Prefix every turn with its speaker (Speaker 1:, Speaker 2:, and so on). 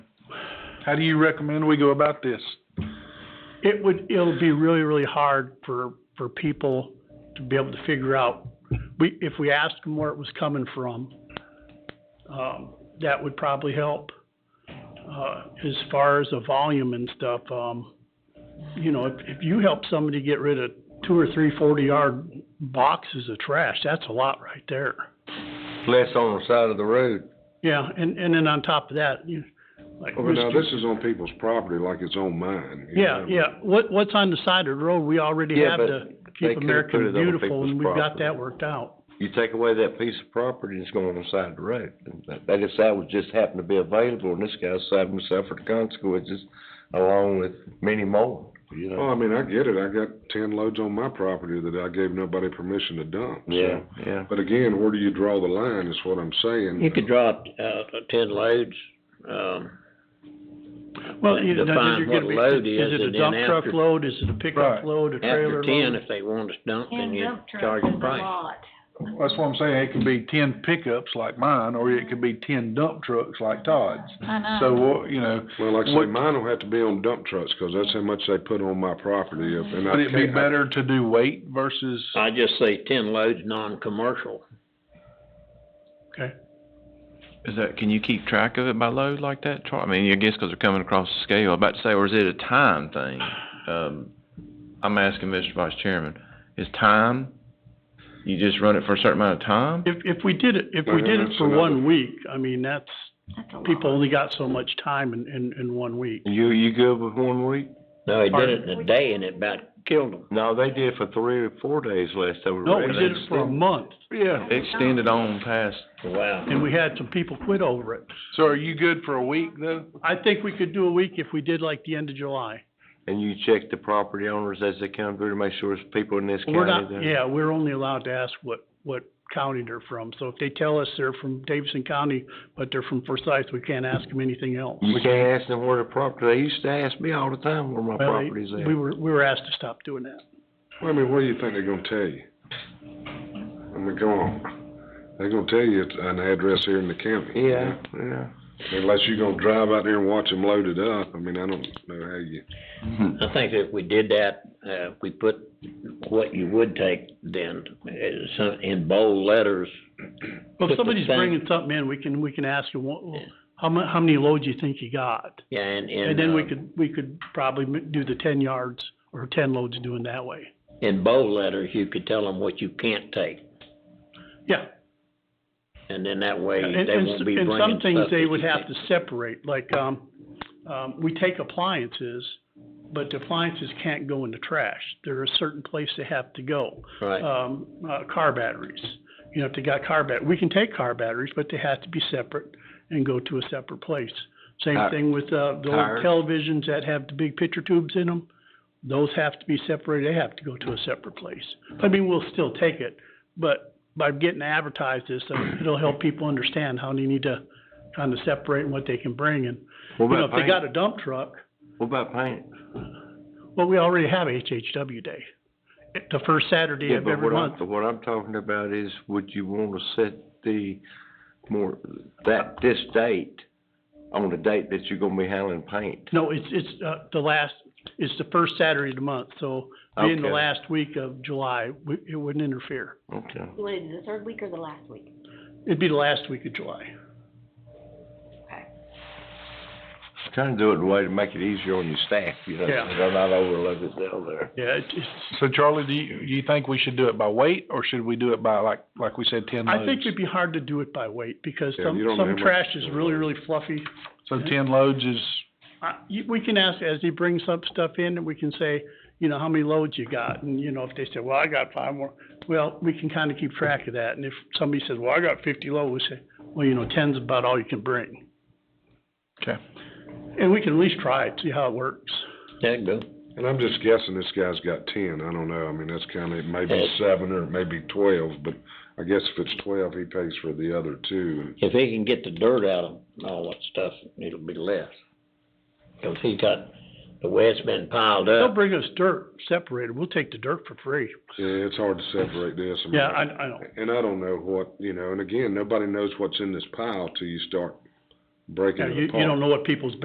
Speaker 1: How do you recommend we go about this?
Speaker 2: It would, it'll be really, really hard for, for people to be able to figure out. We, if we asked them where it was coming from, um, that would probably help. Uh, as far as the volume and stuff, um, you know, if, if you help somebody get rid of two or three forty-yard boxes of trash, that's a lot right there.
Speaker 3: less on the side of the road.
Speaker 2: Yeah, and, and then on top of that, you, like.
Speaker 4: Well, but now
Speaker 2: Mr.
Speaker 4: this is on people's property like it's on mine. you
Speaker 2: Yeah,
Speaker 4: know?
Speaker 2: yeah, what, what's on the side of the road, we already
Speaker 3: Yeah,
Speaker 2: have
Speaker 3: but
Speaker 2: to
Speaker 3: they
Speaker 2: keep
Speaker 3: could've put it
Speaker 2: American
Speaker 3: on
Speaker 2: beautiful, and
Speaker 3: people's
Speaker 2: we've got
Speaker 3: property.
Speaker 2: that worked out.
Speaker 3: You take away that piece of property that's going on the side of the road. And that- They decided was just happened to be available, and this guy's saving himself for the consequences along with many more, you
Speaker 2: Oh,
Speaker 4: Well,
Speaker 3: know?
Speaker 4: Oh, I mean, I get it. I got ten loads on my property that I gave nobody permission to dump, so.
Speaker 3: Yeah, yeah.
Speaker 4: But again, where do you draw the line is what I'm saying.
Speaker 5: You could drop, uh, ten loads, um,
Speaker 2: Well, you know,
Speaker 5: Define
Speaker 2: you're
Speaker 5: what
Speaker 2: gonna be,
Speaker 5: load
Speaker 2: is
Speaker 5: is,
Speaker 2: it a
Speaker 5: and then
Speaker 2: dump truck
Speaker 5: after-
Speaker 2: load, is it a pickup
Speaker 1: Right.
Speaker 2: load, a
Speaker 5: after
Speaker 2: trailer
Speaker 5: ten,
Speaker 2: load?
Speaker 5: if they want to dump, then
Speaker 6: And
Speaker 5: you
Speaker 6: dump
Speaker 5: charge
Speaker 6: truck
Speaker 5: a
Speaker 6: is a
Speaker 5: price.
Speaker 6: lot.
Speaker 1: That's what I'm saying, it could be ten pickups like mine, or it could be ten dump trucks like Todd's.
Speaker 6: I know.
Speaker 1: So, what- you know,
Speaker 4: Well, like I say,
Speaker 1: What-
Speaker 4: mine will have to be on dump trucks, 'cause that's how much they put on my property, if- and I
Speaker 1: would it be
Speaker 4: can't- I-
Speaker 1: better to do weight versus,
Speaker 5: I just say ten loads, non-commercial.
Speaker 2: Okay,
Speaker 7: Is that, can you keep track of it by load like that, Charlie? I mean, I guess because they're coming across the scale, I'm about to say, or is it a time thing? Um, I'm asking Mr. Vice Chairman, is time, you just run it for a certain amount of time?
Speaker 2: if, if we did it, if we
Speaker 4: Yeah,
Speaker 2: did it
Speaker 4: that's
Speaker 2: for
Speaker 4: another-
Speaker 2: one week, I mean, that's,
Speaker 6: That's a lot.
Speaker 2: people only got so much time in, in, in one week.
Speaker 3: You, you good with one week?
Speaker 5: No, he did it in a day and it about killed them.
Speaker 3: No, they did for three or four days last time.
Speaker 2: No, we did it for a month,
Speaker 1: yeah.
Speaker 7: Extended on past,
Speaker 5: Wow.
Speaker 2: and we had some people quit over it.
Speaker 1: So are you good for a week though?
Speaker 2: I think we could do a week if we did like the end of July.
Speaker 3: And you check the property owners as they come through to make sure it's people in this
Speaker 2: We're
Speaker 3: county
Speaker 2: not,
Speaker 3: that.
Speaker 2: yeah, we're only allowed to ask what, what county they're from, so if they tell us they're from Davidson County, but they're from Forsyth, we can't ask them anything else.
Speaker 3: You can't ask them where the property, they used to ask me all the time where my
Speaker 2: Well, they-
Speaker 3: property's at.
Speaker 2: We were, we were asked to stop doing that.
Speaker 4: Well, I mean, what do you think they're gonna tell you? I mean, come on. They're gonna tell you it's an address here in the county. you
Speaker 3: Yeah,
Speaker 4: know?
Speaker 3: yeah.
Speaker 4: Unless you're gonna drive out there and watch them load it up, I mean, I don't know how you.
Speaker 5: I think if we did that, uh, if we put what you would take then, uh, some- in bold letters.
Speaker 2: Well,
Speaker 5: put the
Speaker 2: if somebody's
Speaker 5: thing-
Speaker 2: bringing something in, we can, we can ask them, well, how mu- how many loads you think you got?
Speaker 5: Yeah, and, and.
Speaker 2: And then we
Speaker 5: uh,
Speaker 2: could, we could probably m- do the ten yards or ten loads doing that way.
Speaker 5: In bold letters, you could tell them what you can't take.
Speaker 2: Yeah.
Speaker 5: And then that way,
Speaker 2: And,
Speaker 5: they
Speaker 2: and
Speaker 5: won't
Speaker 2: s-
Speaker 5: be
Speaker 2: and
Speaker 5: bringing
Speaker 2: some things
Speaker 5: stuff
Speaker 2: they
Speaker 5: that
Speaker 2: would
Speaker 5: you
Speaker 2: have
Speaker 5: can't-
Speaker 2: to separate, like, um, um, we take appliances, but the appliances can't go in the trash. There are certain place they have to go.
Speaker 5: Right,
Speaker 2: um, uh, car batteries. You know, if they got car bat, we can take car batteries, but they have to be separate and go to a separate place. Same
Speaker 3: Tire-
Speaker 2: thing with, uh, the
Speaker 3: tires.
Speaker 2: old televisions that have the big picture tubes in them. Those have to be separated, they have to go to a separate place. I mean, we'll still take it, but by getting advertised this, so it'll help people understand how they need to kind of separate and what they can bring and,
Speaker 3: What
Speaker 2: you know, if
Speaker 3: about
Speaker 2: they got
Speaker 3: paint?
Speaker 2: a dump truck,
Speaker 3: What about paint?
Speaker 2: well, we already have HHW Day. It- The first Saturday
Speaker 3: Yeah,
Speaker 2: of
Speaker 3: but
Speaker 2: every
Speaker 3: what
Speaker 2: month.
Speaker 3: I'm, what I'm talking about is, would you wanna set the more, that, this date on the date that you're gonna be handling paint?
Speaker 2: No, it's, it's, uh, the last, it's the first Saturday of the month, so being the
Speaker 3: Okay.
Speaker 2: last week of July, we, it wouldn't interfere.
Speaker 3: Okay.
Speaker 6: What is it, the third week or the last week?
Speaker 2: It'd be the last week of July.
Speaker 3: Just Trying to do it in a way to make it easier on your staff, you know,
Speaker 2: Yeah.
Speaker 3: so they're not overloaded down there.
Speaker 2: Yeah, it, it's,
Speaker 1: So Charlie, do you, you think we should do it by weight or should we do it by like, like we said, ten loads?
Speaker 2: I think it'd be hard to do it by weight, because
Speaker 4: Yeah,
Speaker 2: some,
Speaker 4: you don't know
Speaker 2: some
Speaker 4: how
Speaker 2: trash
Speaker 4: much-
Speaker 2: is really, really fluffy.
Speaker 1: So ten loads is,
Speaker 2: Uh, you, we can ask, as they bring some stuff in, and we can say, you know, how many loads you got, and, you know, if they say, well, I got five more, well, we can kinda keep track of that, and if somebody says, well, I got fifty loads, we say, well, you know, ten's about all you can bring.
Speaker 1: okay.
Speaker 2: And we can at least try it, see how it works.
Speaker 5: that go.
Speaker 4: And I'm just guessing this guy's got ten, I don't know, I mean, that's kinda, maybe
Speaker 5: Yes.
Speaker 4: seven or maybe twelve, but I guess if it's twelve, he pays for the other two.
Speaker 5: If he can get the dirt out of all that stuff, it'll be less. Cause he got, the way it's been piled
Speaker 2: They'll
Speaker 5: up,
Speaker 2: bring us dirt separated. We'll take the dirt for free.
Speaker 4: Yeah, it's hard to separate this. I mean,
Speaker 2: Yeah, I, I know.
Speaker 4: And I don't know what, you know, and again, nobody knows what's in this pile till you start breaking
Speaker 2: Yeah,
Speaker 4: it
Speaker 2: you,
Speaker 4: apart.
Speaker 2: you don't know what people's